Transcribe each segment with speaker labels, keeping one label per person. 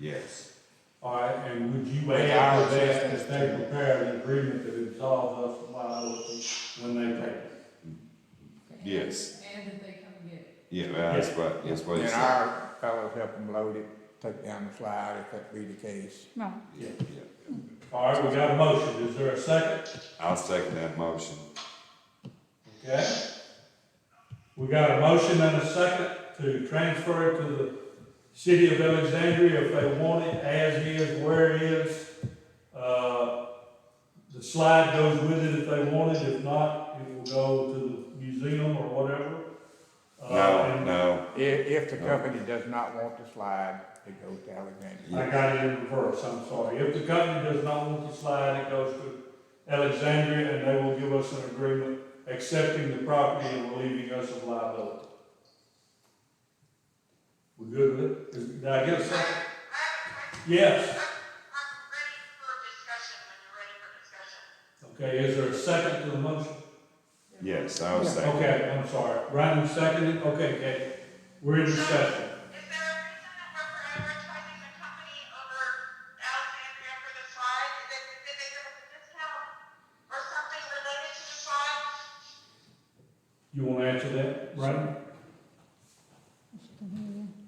Speaker 1: Yes.
Speaker 2: All right, and would you
Speaker 1: Wait,
Speaker 2: add
Speaker 1: I'll
Speaker 2: to that
Speaker 1: just-
Speaker 2: as they prepare an agreement that absolves us of liability when they pay? us?
Speaker 1: Yes.
Speaker 3: And that they come and get it.
Speaker 1: Yeah, that's what, that's what he
Speaker 4: And
Speaker 1: said.
Speaker 4: our fellows help them load it, take down the slide if that be the case.
Speaker 5: Right.
Speaker 1: Yeah, yeah.
Speaker 2: All right, we got a motion. Is there a second?
Speaker 1: I'll second that motion.
Speaker 2: Okay. We got a motion and a second to transfer it to the city of Alexandria if they want it as is, where it is. Uh, the slide goes with it if they want it. If not, it will go to the museum or whatever. Uh,
Speaker 1: No,
Speaker 2: and
Speaker 1: no,
Speaker 4: If, if the company does not want the slide, it goes to Alexandria.
Speaker 2: I got it in reverse, I'm sorry. If the company does not want the slide, it goes to Alexandria and they will give us an agreement accepting the property and relieving us of liability. We good with it? Is- Did I get a second? Yes. Okay, is there a second to the motion?
Speaker 1: yes, I'll second.
Speaker 2: Okay, I'm sorry. Ryan seconded, okay, okay. We're in discussion.
Speaker 6: Is there a reason that we're prioritizing the company over Alexandria for the slide? Is it, did they give us a discount or something related to the slide?
Speaker 2: You wanna answer that, Ryan?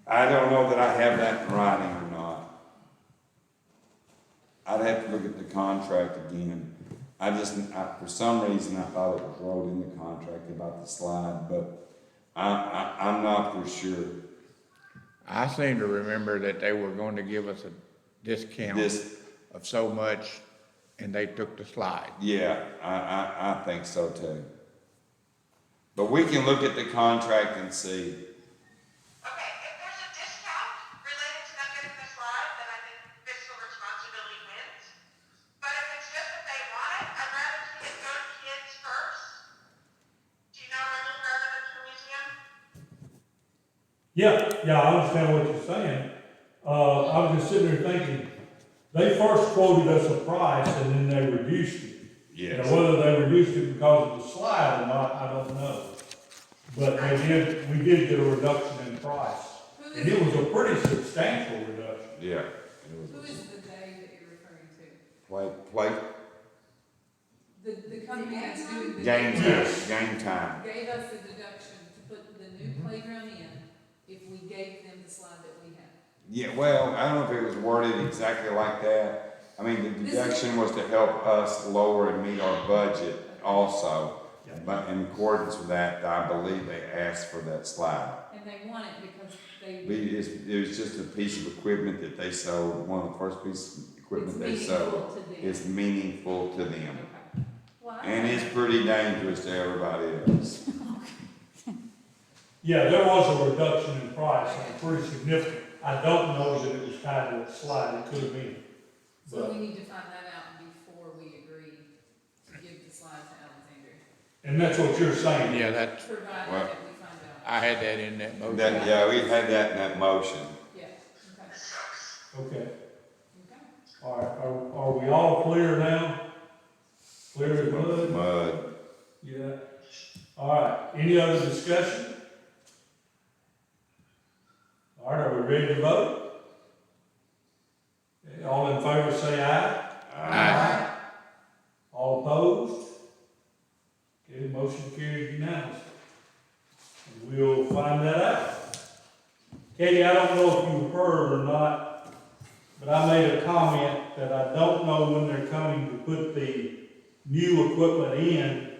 Speaker 1: I don't know that I have that in writing or not. I'd have to look at the contract again. I just, I, for some reason, I thought it was wrote in the contract about the slide, but I, I, I'm not for sure.
Speaker 4: I seem to remember that they were going to give us a discount
Speaker 1: This,
Speaker 4: of so much, and they took the slide.
Speaker 1: yeah, I, I, I think so too. But we can look at the contract and see.
Speaker 6: Okay, if there's a discount related to them getting the slide, then I think fiscal responsibility wins. But if it's just that they want it, I'd rather see it go to kids first. Do you know where the relevant to museum?
Speaker 2: Yeah, yeah, I understand what you're saying. Uh, I was just sitting there thinking, they first quoted us a price and then they reduced it.
Speaker 1: Yes.
Speaker 2: Now, whether they reduced it because of the slide or not, I don't know. But they did, we did get a reduction in price.
Speaker 3: Who
Speaker 2: And it
Speaker 3: is,
Speaker 2: was a pretty substantial reduction.
Speaker 1: Yeah.
Speaker 3: who is the they that you're referring to?
Speaker 1: Play, play,
Speaker 3: The, the company that's doing the.
Speaker 1: game time,
Speaker 2: Yes.
Speaker 1: game time.
Speaker 3: Gave us the deduction to put the new playground in if we gave them the slide that we have.
Speaker 1: Yeah, well, I don't know if it was worded exactly like that. I mean, the
Speaker 3: This is-
Speaker 1: deduction was to help us lower and meet our budget also. But in accordance with that, I believe they asked for that slide.
Speaker 3: And they want it because
Speaker 1: But
Speaker 3: they.
Speaker 1: it's, it was just a piece of equipment that they sold, one of the first pieces of
Speaker 3: It's
Speaker 1: equipment they sold.
Speaker 3: meaningful to them.
Speaker 1: It's meaningful to them.
Speaker 3: Okay. Well, I-
Speaker 1: And it's pretty dangerous to everybody else.
Speaker 2: Yeah, there was a reduction in price and pretty significant. I don't know that it was tied to the slide, it could have been.
Speaker 3: So we need to find that out before we agree to give the slide to Alexandria,
Speaker 2: And that's what you're saying.
Speaker 4: Yeah, that's,
Speaker 3: provided
Speaker 1: Well-
Speaker 3: that we find out.
Speaker 4: I had that in that motion.
Speaker 1: That, yeah, we had that in that motion.
Speaker 3: Yeah, okay,
Speaker 2: Okay.
Speaker 3: okay.
Speaker 2: All right, are, are we all clear now? Clear as mud?
Speaker 1: Mud.
Speaker 2: Yeah. All right, any other discussion? All right, are we ready to vote? Eh, All in favor, say aye.
Speaker 4: Aye.
Speaker 2: All opposed? Okay, motion carries unanimously. And We'll find that out. Katie, I don't know if you heard or not, but I made a comment that I don't know when they're coming to put the new equipment in,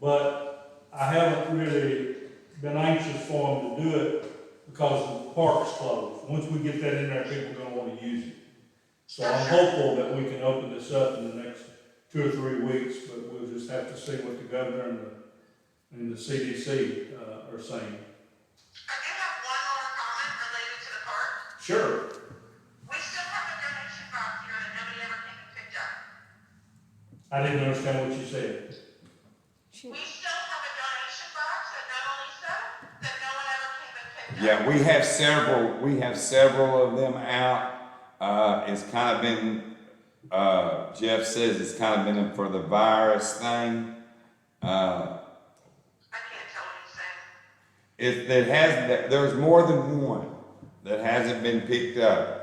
Speaker 2: but I haven't really been anxious for them to do it because the park's closed. Once we get that in there, people are gonna wanna use it. So I'm hopeful that we can open this up in the next two or three weeks, but we'll just have to see what the governor and the, and the CDC, uh, are saying.
Speaker 6: I do have one more comment related to the park.
Speaker 2: Sure.
Speaker 6: We still have a donation box here that nobody ever came and picked up.
Speaker 2: I didn't understand what you said.
Speaker 5: She-
Speaker 6: We still have a donation box that not only so, that no one ever came and picked up.
Speaker 1: Yeah, we have several, we have several of them out. Uh, it's kind of been, uh, Jeff says it's kind of been for the virus thing. Uh,
Speaker 6: I can't tell what he's saying.
Speaker 1: it, it has, there's more than one that hasn't been picked up.